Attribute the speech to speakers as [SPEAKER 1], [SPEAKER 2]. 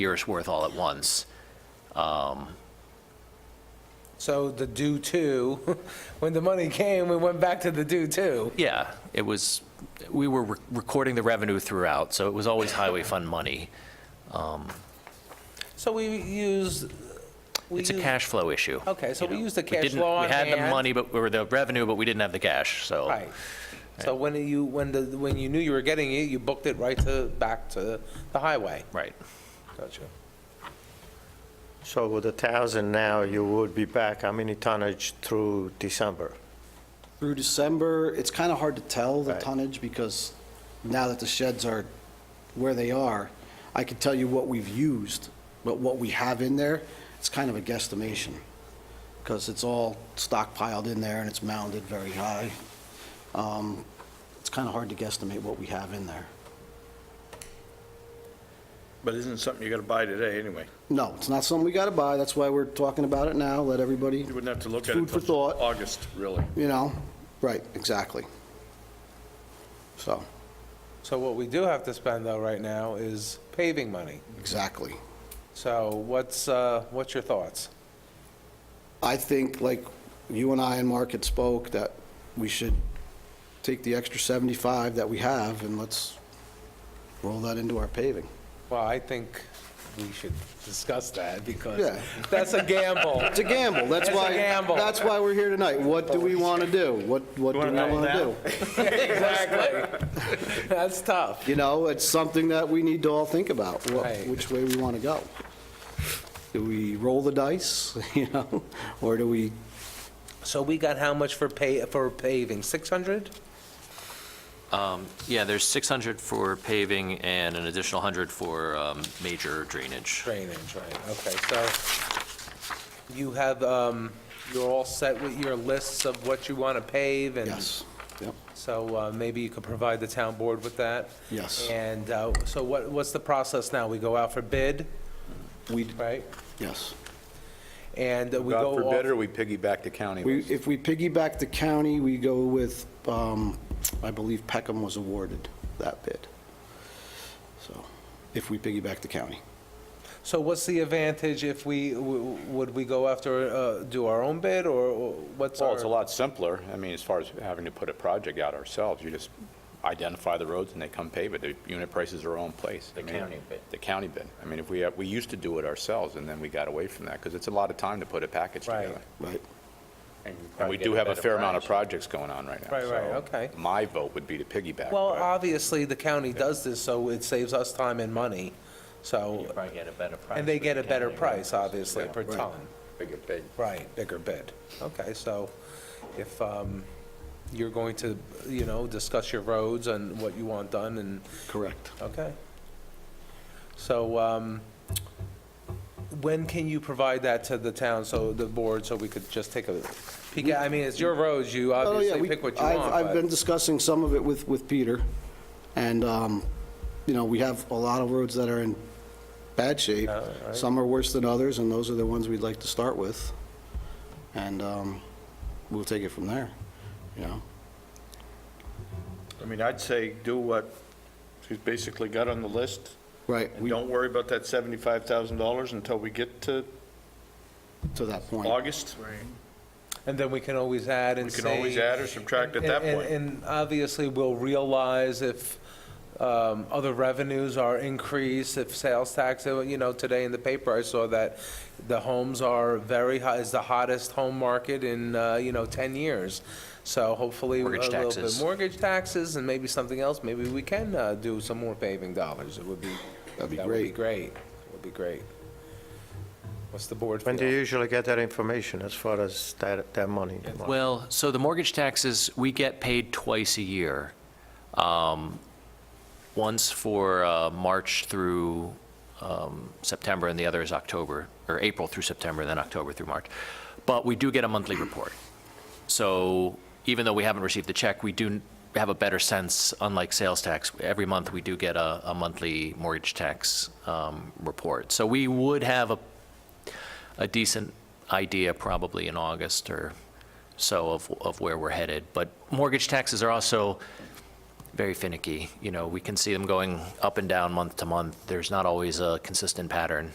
[SPEAKER 1] year's worth all at once.
[SPEAKER 2] So the due to, when the money came, we went back to the due to.
[SPEAKER 1] Yeah, it was, we were re- recording the revenue throughout, so it was always highway fund money.
[SPEAKER 2] So we used. we
[SPEAKER 1] It's a
[SPEAKER 2] used-
[SPEAKER 1] cash flow issue.
[SPEAKER 2] Okay, so
[SPEAKER 1] you
[SPEAKER 2] we
[SPEAKER 1] know.
[SPEAKER 2] used the cash
[SPEAKER 1] didn't-
[SPEAKER 2] flow on
[SPEAKER 1] We had the
[SPEAKER 2] hand.
[SPEAKER 1] money, but, or the revenue, but we didn't have the cash, so.
[SPEAKER 2] Right. So when you, when the, when you knew you were getting it, you booked it right to, back to the highway.
[SPEAKER 1] Right.
[SPEAKER 2] Gotcha.
[SPEAKER 3] So with a thousand now, you would be back, how many tonnage through December?
[SPEAKER 4] Through December, it's kind of hard to tell the
[SPEAKER 3] Right.
[SPEAKER 4] tonnage because now that the sheds are where they are, I can tell you what we've used, but what we have in there, it's kind of a guesstimation because it's all stockpiled in there and it's mounded very high. Um, It's kind of hard to guesstimate what we have in there.
[SPEAKER 5] But isn't it something you gotta buy today anyway?
[SPEAKER 4] No, it's not something we got to buy. That's why we're talking about it now. Let everybody,
[SPEAKER 5] You wouldn't have to look at it
[SPEAKER 4] Food for
[SPEAKER 5] until
[SPEAKER 4] thought.
[SPEAKER 5] August, really.
[SPEAKER 4] you know, right, exactly. So,
[SPEAKER 2] So what we do have to spend though right now is paving money.
[SPEAKER 4] exactly.
[SPEAKER 2] So what's, uh, what's your thoughts?
[SPEAKER 4] I think, like you and I and Mark had spoke, that we should take the extra 75 that we have and let's roll that into our paving.
[SPEAKER 2] Well, I think we should discuss that because
[SPEAKER 4] Yeah.
[SPEAKER 2] that's a gamble.
[SPEAKER 4] It's a gamble, that's
[SPEAKER 2] It's a
[SPEAKER 4] why.
[SPEAKER 2] gamble.
[SPEAKER 4] That's why we're here tonight. What do we want to do? What, what do we
[SPEAKER 5] wanna
[SPEAKER 4] want to
[SPEAKER 5] double
[SPEAKER 4] do?
[SPEAKER 2] Exactly. That's tough.
[SPEAKER 4] You know, it's something that we need to all think about, what-
[SPEAKER 2] Right.
[SPEAKER 4] which way we want to go. Do we roll the dice, you know, or do we,
[SPEAKER 2] So we got how much for pay, for paving? 600?
[SPEAKER 1] Yeah, there's 600 for paving and an additional 100 for um, major drainage.
[SPEAKER 2] Drainage, right, okay, so you have, um, you're all set with your lists of what you want to pave and.
[SPEAKER 4] yes, yep.
[SPEAKER 2] So uh, maybe you could provide the town board with that?
[SPEAKER 4] Yes.
[SPEAKER 2] And uh, so what, what's the process now? We go out for bid,
[SPEAKER 4] We,
[SPEAKER 2] right?
[SPEAKER 4] yes.
[SPEAKER 2] And we
[SPEAKER 6] God
[SPEAKER 2] go off,
[SPEAKER 6] forbid, or we piggyback the county
[SPEAKER 4] We,
[SPEAKER 6] with
[SPEAKER 4] if we piggyback the county, we go with, um, I believe Peckham was awarded that bid. So, if we piggyback the county.
[SPEAKER 2] so what's the advantage if we, w- would we go after, uh, do our own bid, or or what's our?
[SPEAKER 6] Well, it's a lot simpler, I mean, as far as having to put a project out ourselves, you just identify the roads and they come pave it, the unit prices are all in place. The county bid. The county bid. I mean, if we, have- we used to do it ourselves, and then we got away from that, because it's a lot of time to put a package
[SPEAKER 2] Right.
[SPEAKER 6] together.
[SPEAKER 4] Right.
[SPEAKER 6] And we do have a fair amount of projects going on right now.
[SPEAKER 2] Right, right,
[SPEAKER 6] so
[SPEAKER 2] okay.
[SPEAKER 6] My vote would be to piggyback.
[SPEAKER 2] Well,
[SPEAKER 6] but-
[SPEAKER 2] obviously, the county does this, so it saves us time and money, so. And they get a better price, obviously, per ton.
[SPEAKER 6] Bigger bid.
[SPEAKER 2] Right, bigger bid. Okay, so if um, you're going to, you know, discuss your roads and what you want done and,
[SPEAKER 4] Correct.
[SPEAKER 2] okay. So um, when can you provide that to the town, so the board, so we could just take a peek? at- I mean, it's your roads, you
[SPEAKER 4] Oh, yeah,
[SPEAKER 2] obviously
[SPEAKER 4] we-
[SPEAKER 2] pick what you
[SPEAKER 4] I've-
[SPEAKER 2] want,
[SPEAKER 4] I've been
[SPEAKER 2] but,
[SPEAKER 4] discussing some of it with, with Peter, and, um, you know, we have a lot of roads that are in bad shape.
[SPEAKER 2] Yeah, Uh, right.
[SPEAKER 4] Some are worse than others, and those are the ones we'd like to start with. And, um, we'll take it from there, you know?
[SPEAKER 5] I mean, I'd say do what she's basically got on the list,
[SPEAKER 4] Right,
[SPEAKER 5] and don't worry about that seventy-five thousand dollars until we get to
[SPEAKER 4] to that point.
[SPEAKER 5] August.
[SPEAKER 2] and then we can always add and
[SPEAKER 5] We
[SPEAKER 2] say.
[SPEAKER 5] can always add or subtract at that
[SPEAKER 2] And-
[SPEAKER 5] point.
[SPEAKER 2] And and obviously, we'll realize if um, other revenues are increased, if sales tax, uh, you know, today in the paper, I saw that the homes are very high, is the hottest home market in, uh, you know, 10 years. So hopefully, a
[SPEAKER 1] Mortgage
[SPEAKER 2] little bit
[SPEAKER 1] taxes.
[SPEAKER 2] mortgage taxes and maybe something else, maybe we can uh, do some more paving dollars. It would be, that
[SPEAKER 4] That'd be
[SPEAKER 2] would be
[SPEAKER 4] great.
[SPEAKER 2] great. It would be great. What's the board
[SPEAKER 3] When do you
[SPEAKER 2] feel?
[SPEAKER 3] usually get that information as far as that, that money?
[SPEAKER 1] Well, so the mortgage taxes, we get paid twice a year. Um, Once for uh, March through um, September, and the other is October, or April through September, then October through March. But we do get a monthly report. So even though we haven't received the check, we do have a better sense, unlike sales tax. Every month, we do get a a monthly mortgage tax um, report. So we would have a a decent idea probably in August or so of, of where we're headed. But mortgage taxes are also, very finicky. You know, we can see them going up and down month to month. There's not always a consistent pattern.